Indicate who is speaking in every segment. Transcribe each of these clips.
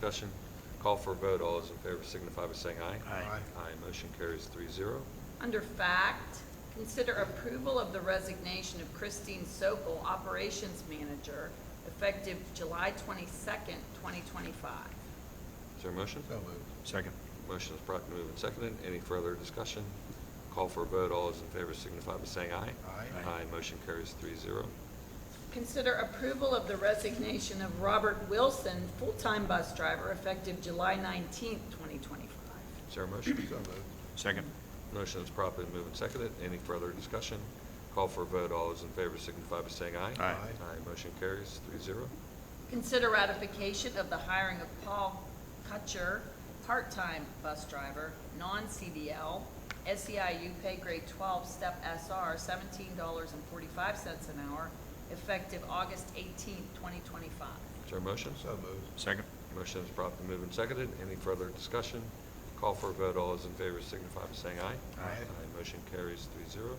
Speaker 1: Discussion, call for a vote, all those in favor signify by saying aye.
Speaker 2: Aye.
Speaker 1: Aye, motion carries three zero.
Speaker 3: Under fact, consider approval of the resignation of Christine Sokol, Operations Manager, effective July 22nd, 2025.
Speaker 1: Is there a motion?
Speaker 2: So moved.
Speaker 4: Second.
Speaker 1: Motion is brought and moved and seconded. Any further discussion? Call for a vote, all those in favor signify by saying aye.
Speaker 2: Aye.
Speaker 4: Aye.
Speaker 1: Aye, motion carries three zero.
Speaker 3: Consider approval of the resignation of Robert Wilson, full-time bus driver, effective July 19th, 2025.
Speaker 1: Is there a motion?
Speaker 2: So moved.
Speaker 4: Second.
Speaker 1: Motion is properly moved and seconded. Any further discussion? Call for a vote, all those in favor signify by saying aye.
Speaker 4: Aye.
Speaker 1: Aye, motion carries three zero.
Speaker 3: Consider ratification of the hiring of Paul Kutcher, part-time bus driver, non-CDL, SEIU E pay grade 12, step SR, $17.45 an hour, effective August 18, 2025.
Speaker 1: Is there a motion?
Speaker 2: So moved.
Speaker 4: Second.
Speaker 1: Motion is promptly moved and seconded. Any further discussion? Call for a vote. All those in favor signify by saying aye.
Speaker 2: Aye.
Speaker 1: motion carries three zero.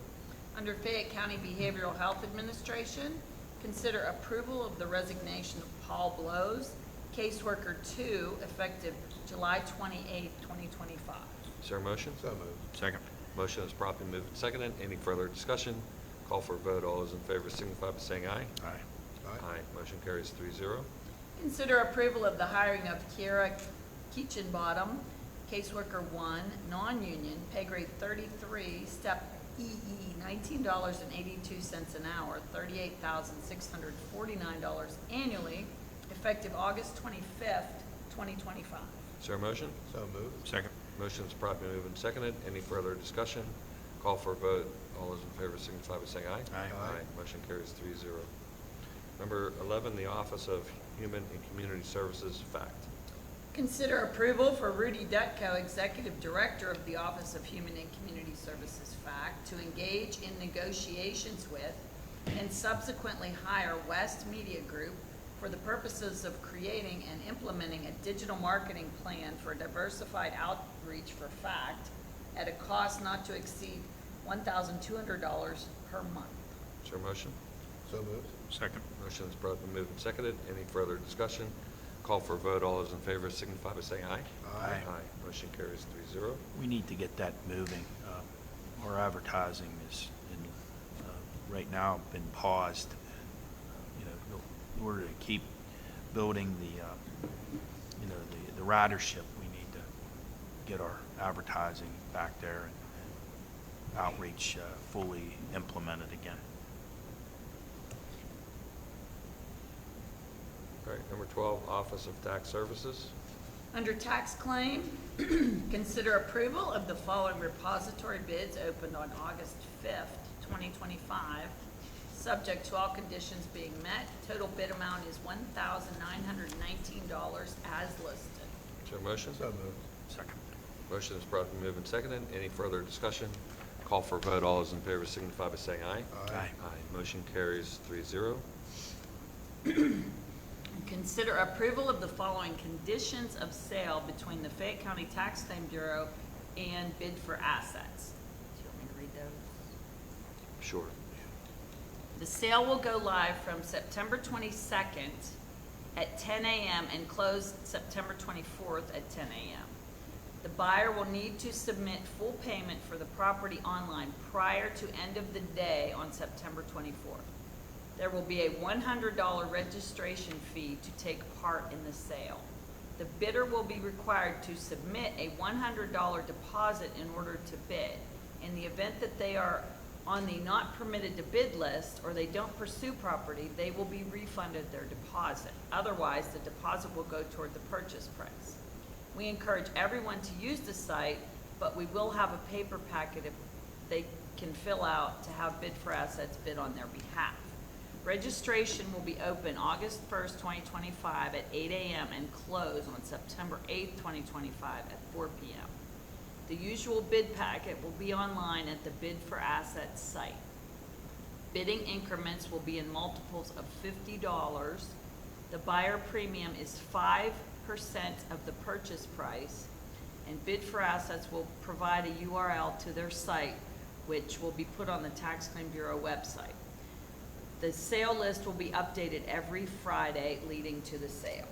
Speaker 3: Under Fayette County Behavioral Health Administration, consider approval of the resignation of Paul Blows, caseworker 2, effective July 28, 2025.
Speaker 1: Is there a motion?
Speaker 2: So moved.
Speaker 4: Second.
Speaker 1: Motion is promptly moved and seconded. Any further discussion? Call for a vote. All those in favor signify by saying aye.
Speaker 4: Aye.
Speaker 1: motion carries three zero.
Speaker 3: Consider approval of the hiring of Kiera Keachinbottom, caseworker one, non-union, pay grade thirty-three, step EE, nineteen dollars and eighty-two cents an hour, thirty-eight thousand six hundred forty-nine dollars annually, effective August twenty-fifth, twenty twenty-five.
Speaker 1: Is there a motion?
Speaker 2: So moved.
Speaker 4: Second.
Speaker 1: Motion is promptly moved and seconded. Any further discussion? Call for a vote. All those in favor signify by saying aye.
Speaker 4: Aye.
Speaker 2: Aye.
Speaker 1: motion carries three zero. Number eleven, the Office of Human and Community Services, fact.
Speaker 3: Consider approval for Rudy Dutko, Executive Director of the Office of Human and Community Services FACT, to engage in negotiations with and subsequently hire West Media Group for the purposes of creating and implementing a digital marketing plan for diversified outreach for FACT at a cost not to exceed $1,200 per month.
Speaker 1: Is there a motion?
Speaker 2: So moved.
Speaker 4: Second.
Speaker 1: Motion is brought and moved and seconded. Any further discussion? Call for a vote. All those in favor signify by saying aye.
Speaker 2: Aye.
Speaker 1: Aye. Motion carries three zero.
Speaker 4: We need to get that moving. Um, Our advertising is, in, uh, right now, been paused, you know, in order to keep building the, uh, you know, the- the ridership, we need to get our advertising back there and outreach uh, fully implemented again.
Speaker 1: All right, number twelve, Office of Tax Services.
Speaker 3: Under tax claim, consider approval of the following repository bids opened on August 5th, 2025, subject to all conditions being met. Total bid amount is $1,919 as listed.
Speaker 1: Is there a motion?
Speaker 2: So moved.
Speaker 4: Second.
Speaker 1: Motion is brought and moved and seconded. Any further discussion? Call for a vote. All those in favor signify by saying aye.
Speaker 4: Aye.
Speaker 1: Aye. Motion carries three zero.
Speaker 3: Consider approval of the following conditions of sale between the Fayette County Tax Claim Bureau and bid for assets. Do you want me to read those?
Speaker 1: Sure.
Speaker 3: The sale will go live from September 22nd at 10 a.m. and close September 24th at 10 a.m. The buyer will need to submit full payment for the property online prior to end of the day on September 24th. There will be a $100 registration fee to take part in the sale. The bidder will be required to submit a $100 deposit in order to bid. In the event that they are on the not permitted to bid list or they don't pursue property, they will be refunded their deposit. Otherwise, the deposit will go toward the purchase price. We encourage everyone to use the site, but we will have a paper packet if they can fill out to have bid for assets bid on their behalf. Registration will be open August 1st, 2025 at 8 a.m. and close on September 8th, 2025 at 4 p.m. The usual bid packet will be online at the Bid for Assets site. Bidding increments will be in multiples of fifty dollars. The buyer premium is five percent of the purchase price, and Bid for Assets will provide a URL to their site, which will be put on the Tax Claim Bureau website. The sale list will be updated every Friday leading to the sale.